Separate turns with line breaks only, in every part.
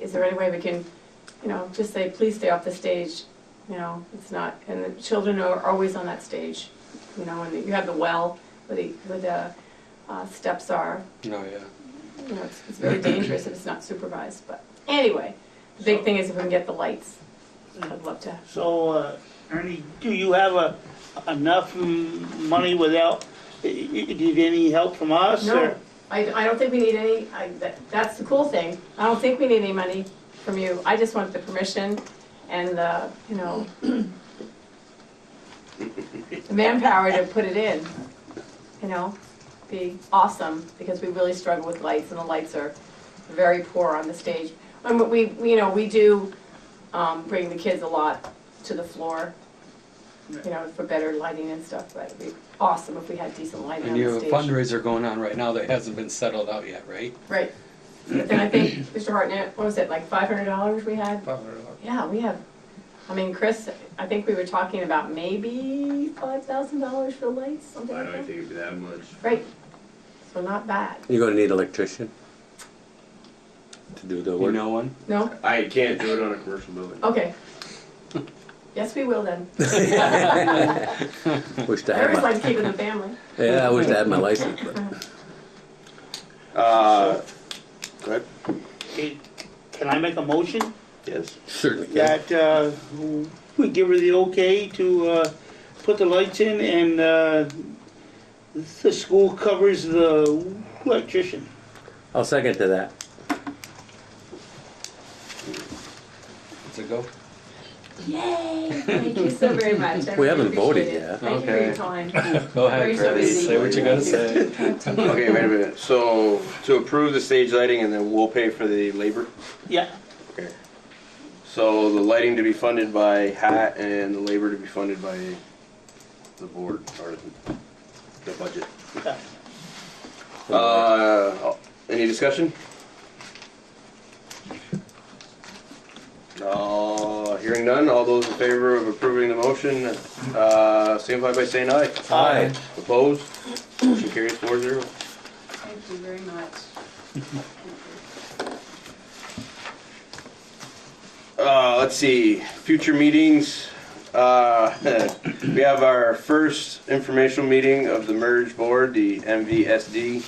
is there any way we can, you know, just say, please stay off the stage? You know, it's not, and the children are always on that stage, you know, and you have the well where the, where the uh, steps are.
No, Oh, yeah.
You know, it's, it's very dangerous if it's not supervised, but anyway, the big thing is if we can get the lights. I'd love to.
So, uh, Ernie, do you have a- enough mm, money without, i- i- do you need any help from us?
No,
or-
I, I don't think we need any, I, that, that's the cool thing. I don't think we need any money from you. I just want the permission and the, you know, the manpower to put it in, you know? Be awesome, because we really struggle with lights and the lights are very poor on the stage. And we, we- you know, we do, um, bring the kids a lot to the floor, you know, for better lighting and stuff, but it'd be awesome if we had decent lighting
And
on
you
the
have a
stage.
fundraiser going on right now that hasn't been settled out yet, right?
Right. But then I think, Mr. Hartnett, what was it, like five hundred dollars we had? Yeah, we have, I mean, Chris, I think we were talking about maybe five thousand dollars for lights, something
I
like
don't
that.
think it'd be that much.
Right. So not bad.
You're gonna need electrician to do the
You
work.
know one?
No?
I can't do it on a commercial building.
Oh.
Okay. Yes, we will then.
Wish to
I
have
always
my,
like keeping the family.
yeah, I wish I had my license, but
Uh, go ahead.
Okay, Can I make a motion
Yes.
certainly can.
that uh, we give her the okay to uh, put the lights in and uh, the school covers the electrician?
I'll second to that.
It's a go.
Yay! Thank you so very much. I
We
really
haven't voted
appreciate it.
yet.
Thank you for your
Okay.
time.
Go ahead,
Very
Chris.
busy.
Say what you gotta say.
Okay, wait a minute. So to approve the stage lighting and then we'll pay for the labor?
Yeah,
Okay. So the lighting to be funded by hat and the labor to be funded by the board or the budget.
yeah.
Uh, any discussion? Uh, hearing none, all those in favor of approving the motion, uh, signify by saying aye.
Aye.
Opposed? Motion carries four zero.
Thank you very much.
Uh, let's see, future meetings. Uh, we have our first informational meeting of the merge board, the MVSD.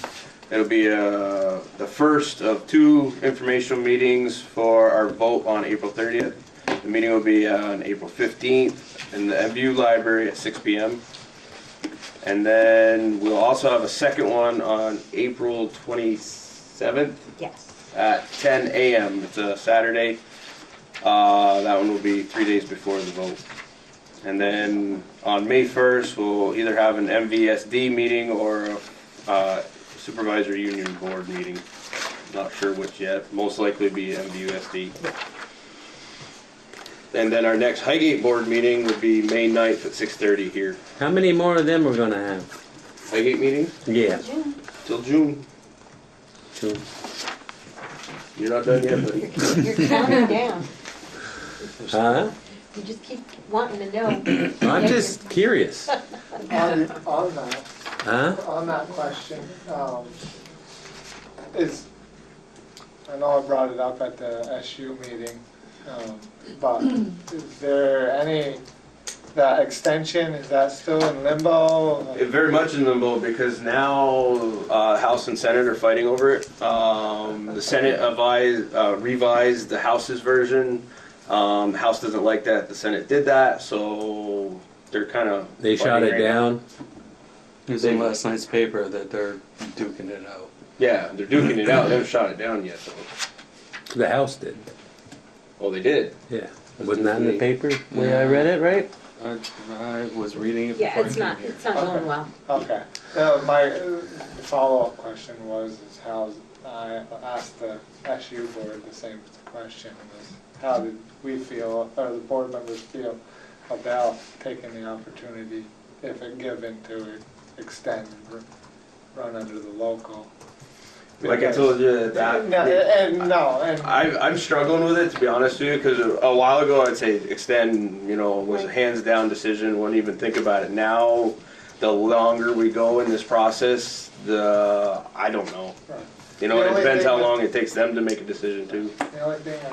It'll be, uh, the first of two informational meetings for our vote on April thirtieth. The meeting will be on April fifteenth in the MVU library at six P M. And then we'll also have a second one on April twenty-seventh
Yes.
at 10 a.m. It's a Saturday. Uh, that one will be three days before the vote. And then on May 1st, we'll either have an MVSD meeting or a uh, supervisor union board meeting. Not sure which yet. Most likely be MVUSD. And then our next Highgate board meeting would be May 9th at 6:30 here.
How many more of them we're gonna have?
Highgate meeting
Yeah,
till June.
two.
You're not done yet, buddy.
You're counting down.
Huh?
You just keep wanting to know.
I'm just curious.
On, on that,
Huh?
on that question, um, is, I know I brought it up at the SU meeting, um, but is there any, that extension, is that still in limbo?
It very much in limbo because now uh, House and Senate are fighting over it. Um, the Senate avised, uh, revised the House's version. Um, House doesn't like that. The Senate did that, so they're kind of
They shot it down.
It was in last night's paper that they're duking it out.
Yeah, they're duking it out. They haven't shot it down yet, though.
The house did.
Oh, they did.
Yeah. Wasn't that in the paper? Where I read it, right?
I, I was reading it
Yeah,
before I
it's
came
not,
here.
it's not going well.
Okay, Uh, my uh, follow-up question was, is how, I asked the SU board the same question, was how did we feel, or the board members feel about taking the opportunity, if it given, to extend, and run under the local?
Like I told you
No,
that.
and, no, and,
I, I'm struggling with it to be honest with you because a while ago I'd say extend, you know, was a hands down decision. Wouldn't even think about it. Now, the longer we go in this process, the I don't know. You know,
The
it
only
depends how
thing that-
long it takes them to make a decision too.
the only thing I